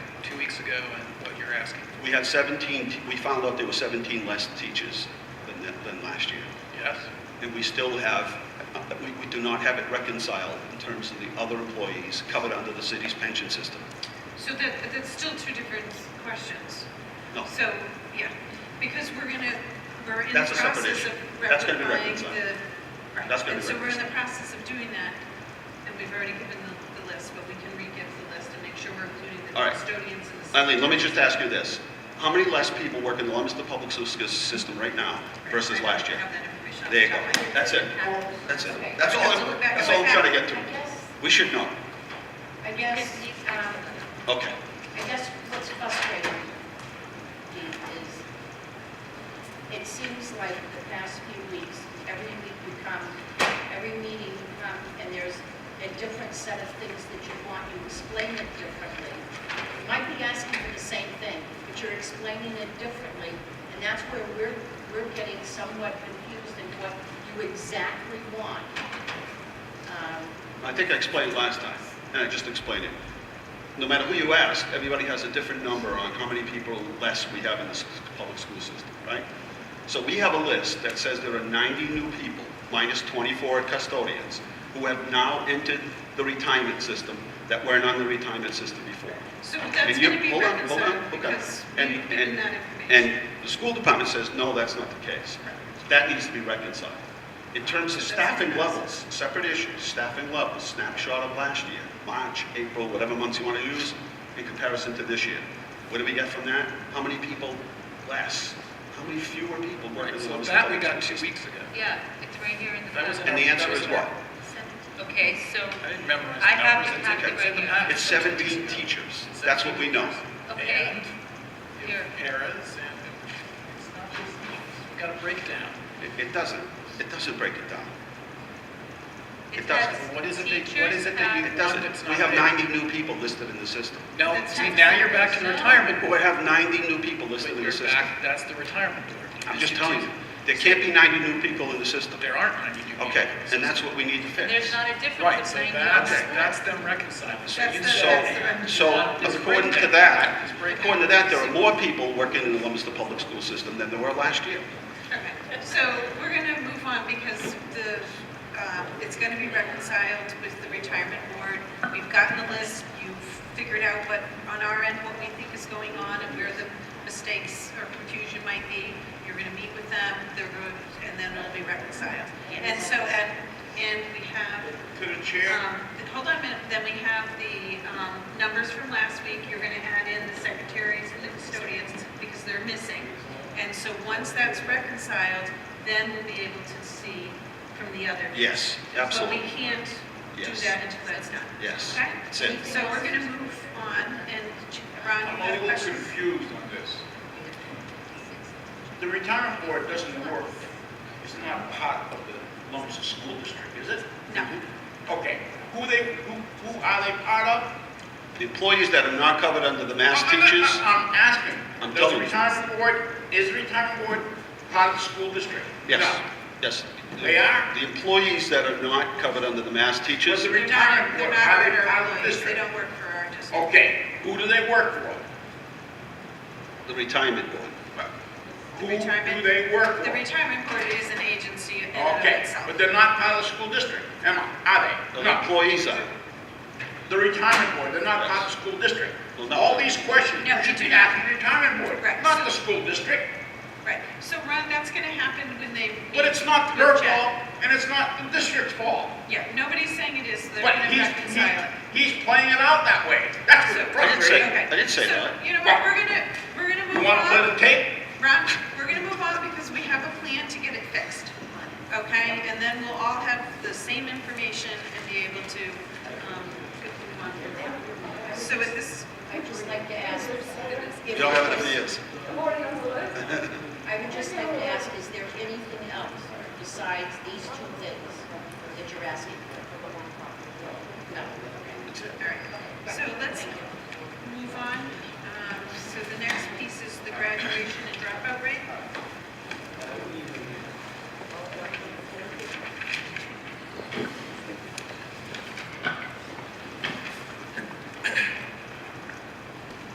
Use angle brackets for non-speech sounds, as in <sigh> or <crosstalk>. ago and what you're asking. We had 17, t- we found out there were 17 less teachers than, th- than last year. Yes? And we still have, uh, we, we do not have it reconciled in terms of the other employees covered under the city's pension system. So that, but that's still two different questions. No, So, yeah, because we're gonna, we're in the That's a separate process issue. of That's gonna be rectifying reconciled. the. right. That's gonna be And so we're in the process of doing that, and we've already given the, the list, but we can re-give the list and make sure we're including the All right. custodians and the. Eileen, let me just ask you this. How many less people work in the Leominster Public School System right now versus I don't last year? have that information off There you the go. top of my head. That's it. Okay. That's it. Okay. That's all, Let's I'm- look back that's at all I'm what trying to get I to. guess, We should know. I guess, um, Okay. I guess what's frustrating me is, it seems like the past few weeks, every week you come, every meeting you come, and there's a different set of things that you want, you explain it differently. You might be asking for the same thing, but you're explaining it differently, and that's where we're, we're getting somewhat confused in what you exactly want. Um, I think I explained last time, and I just explained it. No matter who you ask, everybody has a different number on how many people less we have in the s- public school system, right? So we have a list that says there are 90 new people, minus 24 custodians, who have now entered the retirement system that weren't on the retirement system before. So And that's you- gonna be hold on, hold on, reconciled, hold on. because And- we've given and- that information. And the school department says, no, that's not the case. That needs to be reconciled. In terms of staffing levels, separate issues, staffing levels, snapshot of last year, March, April, whatever months you want to use, in comparison to this year. What do we get from that? How many people less? How many fewer people work in the So Leominster that we Public got School two weeks ago. Yeah, it's right here in the That was back. System? And the answer is what? Okay, so, I didn't memorize I the have numbers. the It's in- packet it's in the right here. packet. It's <laughs> 17 teachers. That's what we know. okay, And Here. paras and it's not just, we've got a breakdown. It- It doesn't, it doesn't break it down. it It doesn't. has What is it that, what is it that you Teachers want It doesn't. that's We not have there? 90 new people listed in the system. No, That's see, not now you're back to the fair. retirement But board. we have 90 new people listed in You're the system. back, that's the retirement board. I'm just telling you, there can't be 90 new people in the system. There aren't 90 new people. Okay, and that's what we need to There's fix. not a Right, difference so between that's, the. that's them reconciling. That's you the- said- So, so It's according to breakdown. that, It's breakdown. according to that, there are more people working in the Leominster Public School System than there were last year. Okay, so we're going to move on because the, uh, it's going to be reconciled with the retirement board. We've gotten the list, you've figured out what, on our end, what we think is going on and where the mistakes or confusion might be. You're going to meet with them, they're going, and then it'll be reconciled. And so, at and we have, To the chair, um, hold on a minute, then we have the um, numbers from last week. You're going to add in the secretaries and the custodians because they're missing. And so once that's reconciled, then we'll be able to see from the other. Yes, But absolutely. we can't do Yes. that until that's done. Yes. Okay? That's it. So we're going to move on, and Ch- Ron, you I'm have a a little question? confused on this. The retirement board doesn't work, it's not part of the Lumpster School District, is it? No. Okay, who they, who, who are they part of? The employees that are not covered under the <laughs> mass I- I- I- teachers, I'm I'm asking, does the telling you. retirement board, is the retirement board part of the school district? yes, No. yes. The- They are? The employees that are not covered under the mass teachers, Was it- They're not- They're Retirement board, not how they- our how the employees, they district- don't work for our district. Okay, who do they work for? the retirement board. Who do retirement- they work for? The retirement board is an agency in and of Okay, itself. but they're not part of the school district, am I? Are they? The No. employees are. The retirement board, they're not part of the school district. Well, no. All these questions No, you should we do be not. asking the retirement Correct. board, not the school district. Right, so Ron, that's going to happen when they. But it's not their their fault, and it's not the district's fault. Yeah, nobody's saying it is, they're But going to he's, reconcile it. he- he's playing it out that way. That's I So- what's didn't say- frustrating. Okay. I didn't say So, that. You know what, we're gonna, we're gonna You move want to play the on. tape? Ron, we're gonna move on because we have a plan to get it fixed, okay? And then we'll all have the same information and be able to, um, move on from there. So at this, I'd just like to ask. You don't have enough years. I would just like to ask, is there anything else besides these two things that you're asking Um,